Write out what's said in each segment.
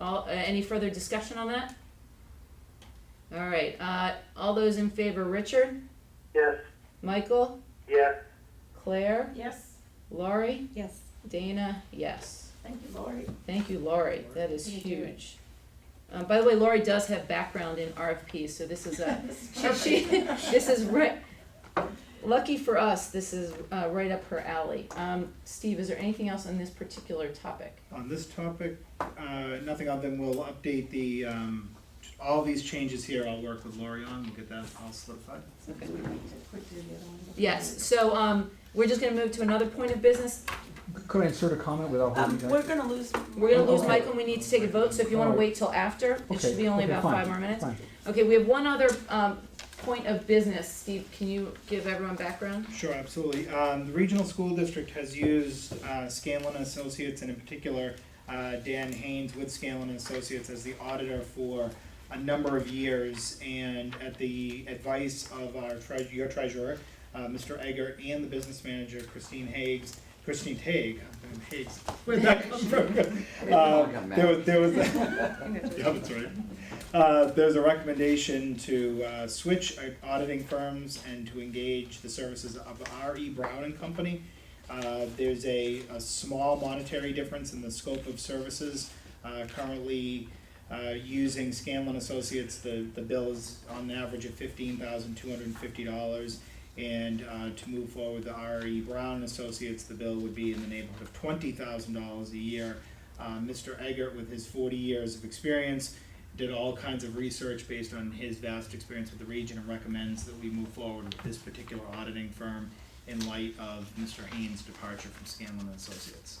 All, uh, any further discussion on that? All right, uh, all those in favor, Richard, Yes, Michael, yes, Claire, Yes, Laurie, Yes, Dana, yes. thank you, Lori. Thank you, Laurie, that is Thank you. huge. Um, by the way, Laurie does have background in RFPs, so this is a, she, she- this is right, lucky for us, this is, uh, right up her alley. Um, Steve, is there anything else on this particular topic? On this topic, uh, nothing other than we'll update the, um, all these changes here, I'll work with Lori on, we'll get that all solidified. Okay. We need to quick do the other one. Yes, so, um, we're just gonna move to another point of business. Could I insert a comment Um, without holding back? we're gonna lose. We're gonna lose Okay. Michael, and we need to take a vote, so if you wanna wait till after, it should be only Okay, about fine, five more minutes. fine. Okay, we have one other, um, point of business. Steve, can you give everyone background? Sure, absolutely. Um, the regional school district has used, uh, Scanlon and Associates and in particular, uh, Dan Haynes with Scanlon and Associates as the auditor for a number of years and at the advice of our treasurer, your treasurer, uh, Mr. Egger and the business manager Christine Hagues, Christine Hague, um, Hagues, where'd that come from? Uh, there was, there was, yeah, that's right. Uh, there's a recommendation to, uh, switch uh, auditing firms and to engage the services of R E Brown and Company. Uh, there's a, a small monetary difference in the scope of services, uh, currently, uh, using Scanlon Associates, the, the bill is on average of fifteen thousand two hundred and fifty dollars. And, uh, to move forward, the R E Brown and Associates, the bill would be in the neighborhood of twenty thousand dollars a year. Uh, Mr. Eggert, with his forty years of experience, did all kinds of research based on his vast experience with the region and recommends that we move forward with this particular auditing firm in light of Mr. Haynes' departure from Scanlon and Associates.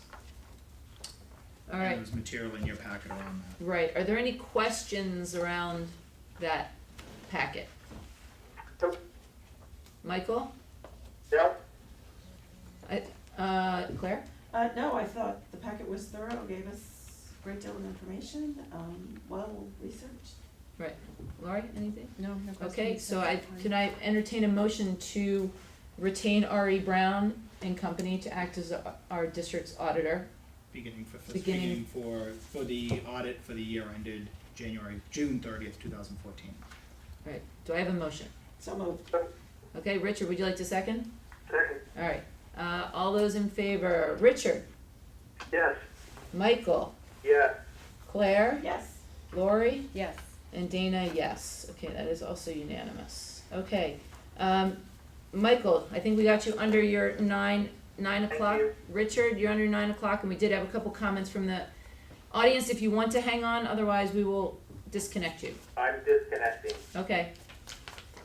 All And right. There's material in your packet around that. Right, are there any questions around that packet? Nope. Michael, no, uh, Claire, Uh, no, I thought the packet was thorough, gave us a great deal of information, um, well researched. Laurie, anything? no, no questions. Okay, so I, can I entertain a motion to retain R.E. Brown and Company to act as our- our district's auditor? Beginning for, fis- Beginning- beginning for, for the audit for the year ended January, June thirtieth, two thousand fourteen. All Right, do I have a motion? So moved. Okay, Richard, would you like to second? second, All right, uh, all those in favor, Richard, yes, Michael, yes, Claire, Yes, Lori? Yes, And Dana, yes. Okay, that is also unanimous. Okay, um, Michael, I think we got you under your nine, nine Thank o'clock. you. Richard, you're under nine o'clock, and we did have a couple comments from the audience if you want to hang on, otherwise we will disconnect you. I'm disconnecting. Okay,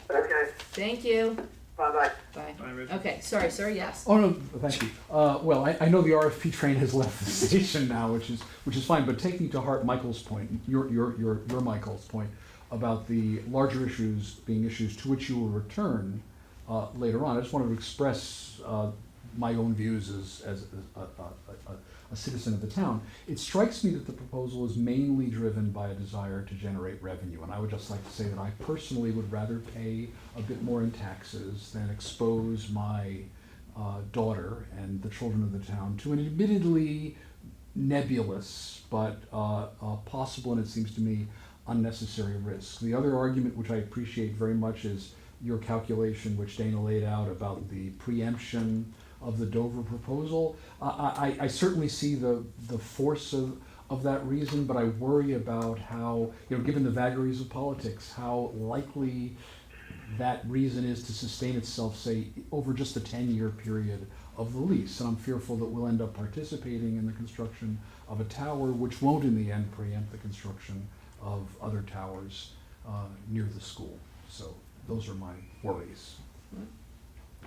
Okay, thank you. bye-bye. Bye. Bye, Rich. Okay, sorry, sir, yes. Oh no, thank you. Uh, well, I, I know the RFP train has left the station now, which is which is fine. But taking to heart Michael's point, your your your your Michael's point about the larger issues being issues to which you will return uh, later on. I just wanted to express uh, my own views as as a, a, a, a- a citizen of the town. It strikes me that the proposal is mainly driven by a desire to generate revenue, and I would just like to say that I personally would rather pay a bit more in taxes than expose my uh, daughter and the children of the town to an admittedly nebulous but uh, uh, possible and it seems to me unnecessary risk. The other argument, which I appreciate very much, is your calculation, which Dana laid out about the preemption of the Dover proposal. I, I, I certainly see the, the force of, of that reason, but I worry about how, you know, given the vagaries of politics, how likely that reason is to sustain itself, say, over just the ten-year period of the lease. And I'm fearful that we'll end up participating in the construction of a tower, which won't in the end preempt the construction of other towers uh, near the school. So those are my worries.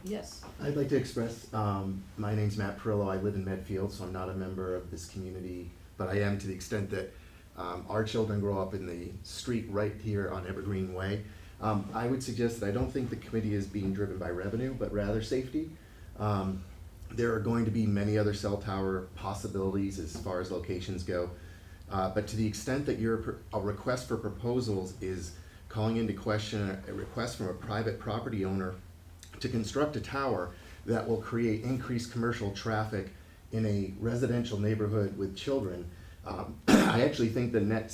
Yes. I'd like to express, um, my name's Matt Perillo, I live in Medfield, so I'm not a member of this community, but I am to the extent that, um, our children grow up in the street right here on Evergreen Way. Um, I would suggest that I don't think the committee is being driven by revenue, but rather safety. Um, there are going to be many other cell tower possibilities as far as locations go. Uh, but to the extent that your, pr- a request for proposals is calling into question a- a request from a private property owner to construct a tower that will create increased commercial traffic in a residential neighborhood with children, Um, I actually think the net